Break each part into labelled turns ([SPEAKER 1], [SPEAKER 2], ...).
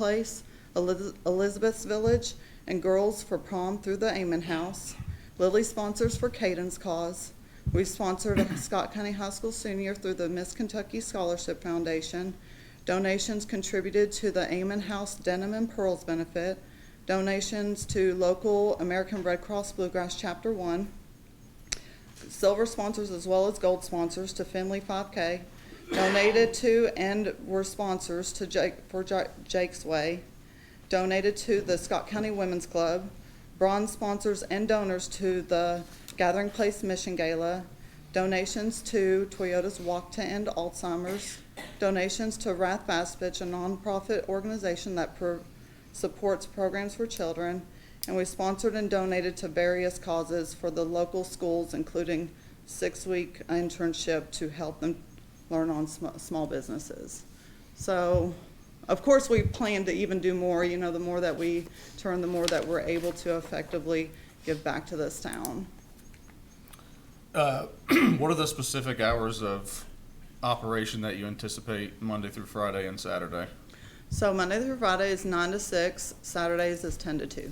[SPEAKER 1] Place, Eliz- Elizabeth's Village, and Girls for Prom through the Amen House. Lily sponsors for Caden's Cause. We've sponsored a Scott County High School senior through the Miss Kentucky Scholarship Foundation. Donations contributed to the Amen House Denim and Pearls Benefit. Donations to local American Red Cross Bluegrass Chapter One silver sponsors as well as gold sponsors to Finley 5K, donated to and were sponsors to Jake, for Ja- Jake's Way, donated to the Scott County Women's Club, bronze sponsors and donors to the Gathering Place Mission Gala, donations to Toyota's Walk to End Alzheimer's, donations to Wrath Fastbitch, a nonprofit organization that pro- supports programs for children, and we sponsored and donated to various causes for the local schools, including six-week internship to help them learn on sm- small businesses. So, of course, we plan to even do more, you know, the more that we turn, the more that we're able to effectively give back to this town.
[SPEAKER 2] Uh, What are the specific hours of operation that you anticipate Monday through Friday and Saturday?
[SPEAKER 1] So Monday through Friday is nine to six, Saturdays is ten to two,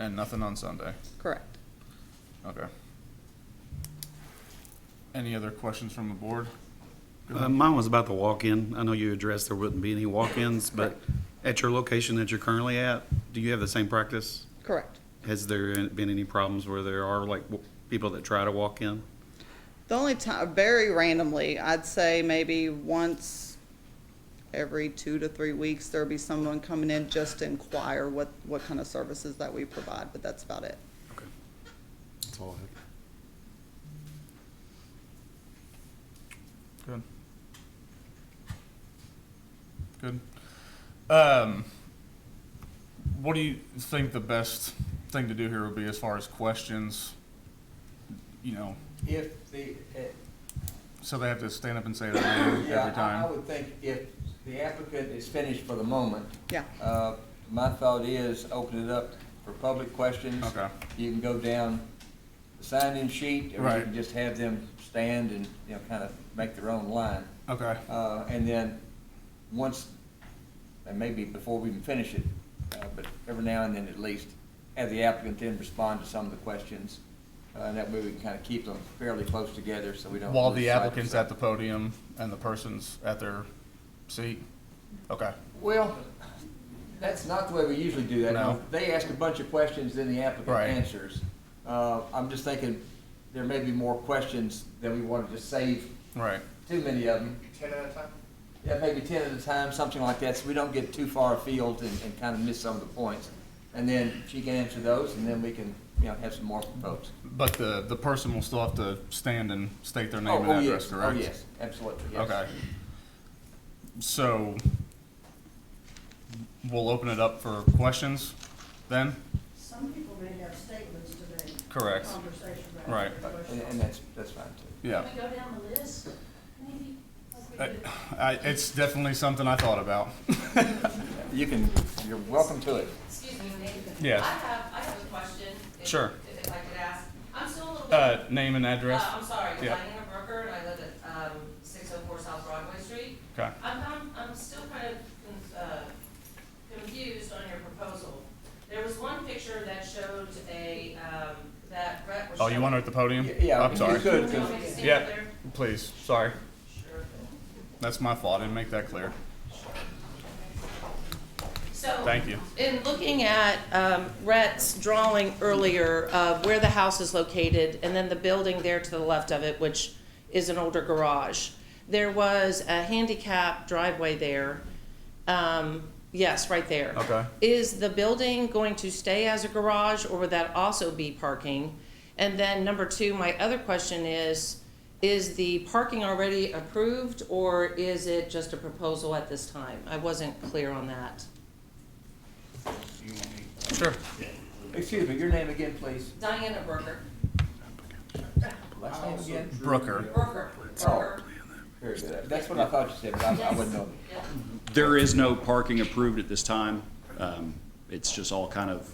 [SPEAKER 2] And nothing on Sunday?
[SPEAKER 1] correct?
[SPEAKER 2] Okay. Any other questions from the board?
[SPEAKER 3] Uh, Mine was about the walk-in. I know you addressed there wouldn't be any walk-ins, but at your location that you're currently at, do you have the same practice?
[SPEAKER 1] Correct.
[SPEAKER 3] Has there been any problems where there are like w- people that try to walk in?
[SPEAKER 1] The only time, very randomly, I'd say maybe once every two to three weeks, there'll be someone coming in just to inquire what, what kind of services that we provide, but that's about it.
[SPEAKER 4] That's all I have.
[SPEAKER 2] Good. Good. Um, what do you think the best thing to do here would be as far as questions? You know,
[SPEAKER 5] If the, eh,
[SPEAKER 2] so they have to stand up and say their name every
[SPEAKER 5] yeah, I- I
[SPEAKER 2] time?
[SPEAKER 5] would think if the applicant is finished for the moment,
[SPEAKER 1] Yeah,
[SPEAKER 5] uh, my thought is open it up for public questions.
[SPEAKER 2] Okay.
[SPEAKER 5] You can go down the sign-in sheet, or you
[SPEAKER 2] Right.
[SPEAKER 5] can just have them stand and, you know, kind of make their own line.
[SPEAKER 2] Okay,
[SPEAKER 5] Uh, And then, once, and maybe before we even finish it, uh, but every now and then at least, have the applicant then respond to some of the questions. Uh, And that way we can kind of keep them fairly close together so we don't.
[SPEAKER 2] while
[SPEAKER 5] lose
[SPEAKER 2] the
[SPEAKER 5] sight of
[SPEAKER 2] applicant's
[SPEAKER 5] something.
[SPEAKER 2] at the podium and the person's at their seat? Okay,
[SPEAKER 5] Well, that's not the way we usually do that.
[SPEAKER 2] No.
[SPEAKER 5] They ask a bunch of questions, then the applicant
[SPEAKER 2] Right.
[SPEAKER 5] answers. Uh, I'm just thinking, there may be more questions that we want to just save
[SPEAKER 2] right.
[SPEAKER 5] too many of them.
[SPEAKER 6] Ten at a time?
[SPEAKER 5] Yeah, maybe ten at a time, something like that, so we don't get too far afield and, and kind of miss some of the points. And then she can answer those, and then we can, you know, have some more folks.
[SPEAKER 2] But the, the person will still have to stand and state their
[SPEAKER 5] Oh,
[SPEAKER 2] name
[SPEAKER 5] oh,
[SPEAKER 2] and address,
[SPEAKER 5] yes.
[SPEAKER 2] correct?
[SPEAKER 5] Oh, yes, absolutely, yes.
[SPEAKER 2] Okay. So we'll open it up for questions then?
[SPEAKER 7] Some people may have statements today.
[SPEAKER 2] Correct.
[SPEAKER 7] Conversation. rather
[SPEAKER 2] Right.
[SPEAKER 7] than
[SPEAKER 5] But- And,
[SPEAKER 7] questions.
[SPEAKER 5] and that's, that's fine too.
[SPEAKER 2] Yeah.
[SPEAKER 7] Can we go down the list, maybe? like we
[SPEAKER 2] I,
[SPEAKER 7] did?
[SPEAKER 2] I, it's definitely something I thought about.
[SPEAKER 5] You can, you're welcome to it.
[SPEAKER 8] Excuse me, Nathan.
[SPEAKER 2] Yes.
[SPEAKER 8] I have, I have a question. if-
[SPEAKER 2] Sure.
[SPEAKER 8] If I could ask. I'm still a little bit.
[SPEAKER 2] Uh, name and address?
[SPEAKER 8] Uh, I'm sorry,
[SPEAKER 2] yeah.
[SPEAKER 8] Diana Brooker, and I live at, um, six oh four South Broadway Street.
[SPEAKER 2] Okay.
[SPEAKER 8] I'm, I'm, I'm still kind of, con- uh, confused on your proposal. There was one picture that showed a, um, that Brett was
[SPEAKER 2] Oh,
[SPEAKER 8] showing.
[SPEAKER 2] you want her at the podium?
[SPEAKER 5] Yeah, Yeah.
[SPEAKER 2] I'm sorry.
[SPEAKER 5] You could,
[SPEAKER 8] Do you want me
[SPEAKER 5] 'cause-
[SPEAKER 8] to stand
[SPEAKER 2] Yeah.
[SPEAKER 8] there?
[SPEAKER 2] Please, sorry.
[SPEAKER 8] Sure.
[SPEAKER 2] That's my fault. I didn't make that clear.
[SPEAKER 8] So.
[SPEAKER 2] Thank you.
[SPEAKER 8] In looking at um, Rhett's drawing earlier of where the house is located and then the building there to the left of it, which is an older garage, there was a handicap driveway there. Um, Yes, right there.
[SPEAKER 2] Okay.
[SPEAKER 8] Is the building going to stay as a garage or would that also be parking? And then number two, my other question is, is the parking already approved or is it just a proposal at this time? I wasn't clear on that.
[SPEAKER 2] Sure.
[SPEAKER 5] Excuse me, your name again, please?
[SPEAKER 8] Diana Berger.
[SPEAKER 5] Last
[SPEAKER 6] Oh,
[SPEAKER 5] name again?
[SPEAKER 2] Brooker.
[SPEAKER 8] Berger. Berger.
[SPEAKER 5] Very good. That's what I thought you said, but I, I wouldn't know.
[SPEAKER 8] Yeah.
[SPEAKER 9] There is no parking approved at this time. Um, It's just all kind of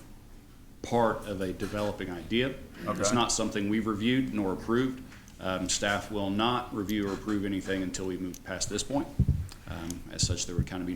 [SPEAKER 9] part of a developing idea. It's
[SPEAKER 2] Okay.
[SPEAKER 9] not something we've reviewed nor approved. Um, Staff will not review or approve anything until we move past this point. Um, As such, there would kind of be